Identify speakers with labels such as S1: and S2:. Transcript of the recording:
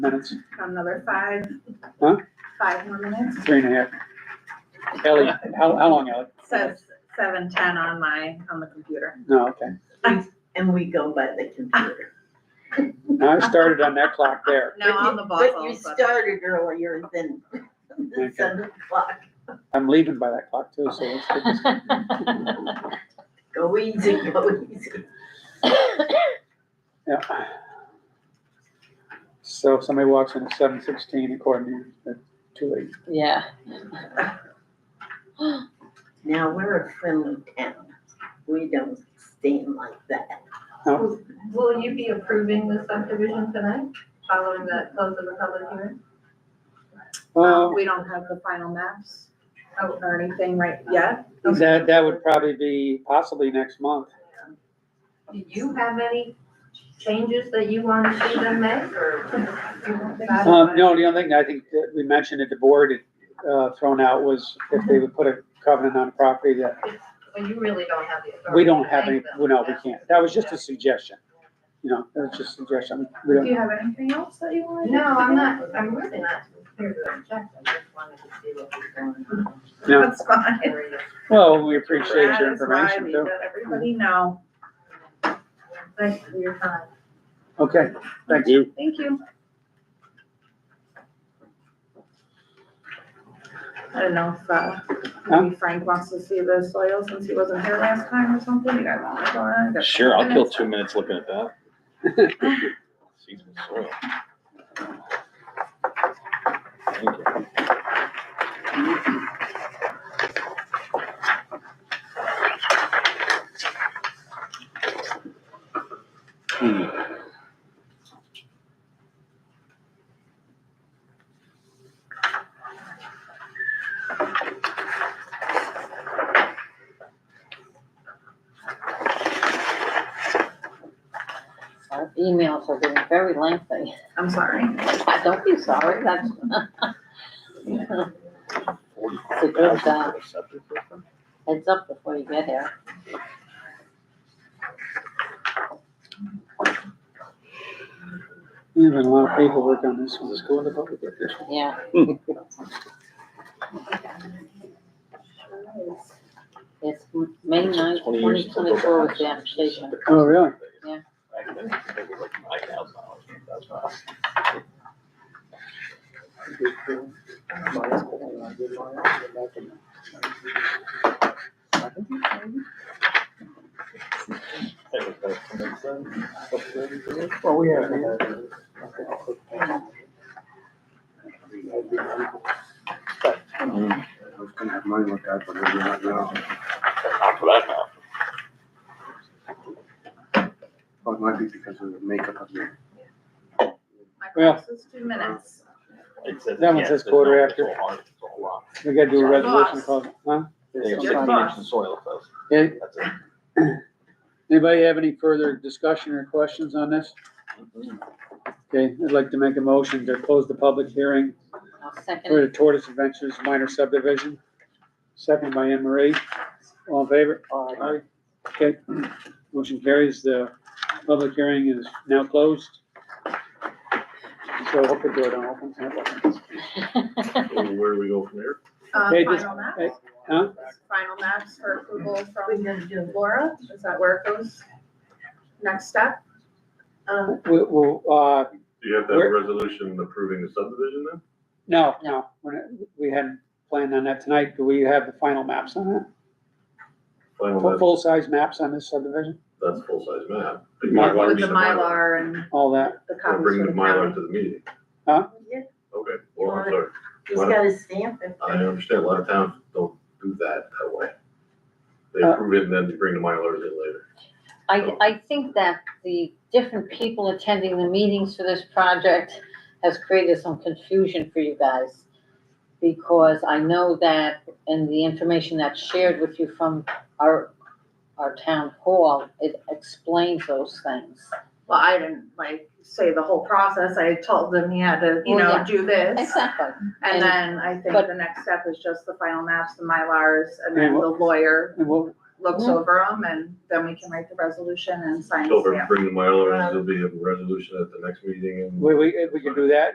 S1: minutes,
S2: another five.
S1: Huh?
S2: Five more minutes,
S1: three and a half. Ellie, how, how long, Ellie?
S2: says seven ten on my, on the computer.
S1: No, okay.
S3: And we go by the computer.
S1: Now I started on that clock there.
S2: Now
S3: But you-
S2: on the
S3: But you
S2: Bossel, but
S3: started earlier than
S1: Okay.
S3: than seven o'clock.
S1: I'm leaving by that clock too, so let's get this.
S3: Go easy, go easy.
S1: Yeah. So if somebody walks in at seven sixteen according to you, that's too late.
S4: Yeah.
S3: Now, we're a friendly town. We don't stand like that.
S5: Will you be approving the subdivision tonight, following that close of the public hearing?
S1: Well,
S2: um, we don't have the final maps
S5: Oh.
S2: or anything right yet.
S1: that, that would probably be possibly next month.
S5: Do you have any changes that you want to see them make, or?
S1: Um, no, the only thing I think that we mentioned at the board, uh, thrown out was if they would put a covenant on property that
S5: Well, you really don't have the authority.
S1: we
S5: to
S1: don't have any,
S5: make them.
S1: well, no, we can't. That was just a suggestion. You know, that was just a suggestion. We
S2: Do
S1: don't,
S2: you have anything else that you wanted?
S5: No, I'm not, I'm really not prepared to object, I just wanted to see what was going on.
S1: No.
S2: That's fine.
S1: well, we appreciate
S2: That
S1: your
S2: is why
S1: information
S2: we
S1: too.
S2: let everybody know.
S5: Thanks for your time.
S1: Okay, thanks.
S2: Thank you. I don't know if, uh, maybe Frank wants to see the soil since he wasn't here last time or something. You guys want to go on? Got
S6: Sure, I'll kill
S2: minutes.
S6: two minutes looking at that. Seasonal soil. Thank you. Hmm.
S4: Our emails are getting very lengthy.
S2: I'm sorry.
S4: Don't be sorry, that's. It's a good, uh, heads up before you get here.
S1: There's been a lot of paperwork on this one.
S6: Does this go in the public record?
S4: Yeah. It's M- May ninth,
S6: Twenty years
S4: twenty
S6: since I built
S4: twenty-four was the
S6: house.
S4: application.
S1: Oh, really?
S4: Yeah.
S6: Back then, I think it was like $9,000, $10,000. That was back in the sun.
S7: Well, we have. I was gonna have mine looked at, but maybe not now.
S6: Not for that now.
S7: Well, it might be because of the makeup of the.
S2: My
S1: Well-
S2: class is two minutes.
S6: It says-
S1: That one
S6: yeah,
S1: says
S6: it's a-
S1: quarter
S6: it's
S1: after.
S6: a lot, it's a whole lot.
S1: We gotta do a resolution
S2: Boss.
S1: call, huh?
S6: They have
S2: Your
S6: sixty
S2: boss.
S6: inches of soil, so
S1: Okay,
S6: that's it.
S1: Anybody have any further discussion or questions on this?
S6: Mm-hmm.
S1: Okay, I'd like to make a motion to close the public hearing
S4: I'll second
S1: for
S4: it.
S1: the Tortoise Adventures minor subdivision. Second by Anne Marie. All in favor?
S6: Aye.
S1: Okay, motion carries. The public hearing is now closed. So hope the door don't open.
S6: Where do we go from there?
S2: Uh,
S1: Hey, this-
S2: final maps,
S1: hey, Huh?
S2: final maps for approval
S3: We're
S2: from
S3: gonna do
S2: Laura. Is that where it goes? Next step?
S3: Um,
S1: We, we'll, uh,
S8: Do you have to have a resolution approving the subdivision then?
S1: No, no, we're not- we hadn't planned on that tonight. Do we have the final maps on it?
S8: Final
S1: Full-
S8: map,
S1: Full-size maps on this subdivision,
S8: that's full-size map.
S1: Mylar,
S2: With the Mylar and
S1: all that?
S2: the
S8: I'll
S2: copies
S8: bring
S2: for
S8: the
S2: the
S8: Mylar
S2: county.
S8: to the meeting.
S3: yeah,
S8: Okay, well, I'm sorry.
S3: He's got a stamp it.
S8: I understand a lot of towns don't do that that way. They
S1: Uh,
S8: approve it and then they bring the Mylars in later.
S4: I, I think that the different people attending the meetings for this project has created some confusion for you guys. Because I know that in the information that's shared with you from our, our town hall, it explains those things.
S2: Well, I didn't like say the whole process. I told them he had to, you
S4: Well,
S2: know,
S4: yeah.
S2: do this.
S4: Exactly.
S2: And then I think
S4: but-
S2: the next step is just the final maps, the Mylars, and then
S1: And
S2: the
S1: what-
S2: lawyer
S1: And we'll,
S2: looks
S4: Yeah.
S2: over them and then we can write the resolution and sign the
S8: Over,
S2: stamp. Uh,
S8: bring the Mylar, and there'll be a resolution at the next meeting and.
S1: we, we, we can do that.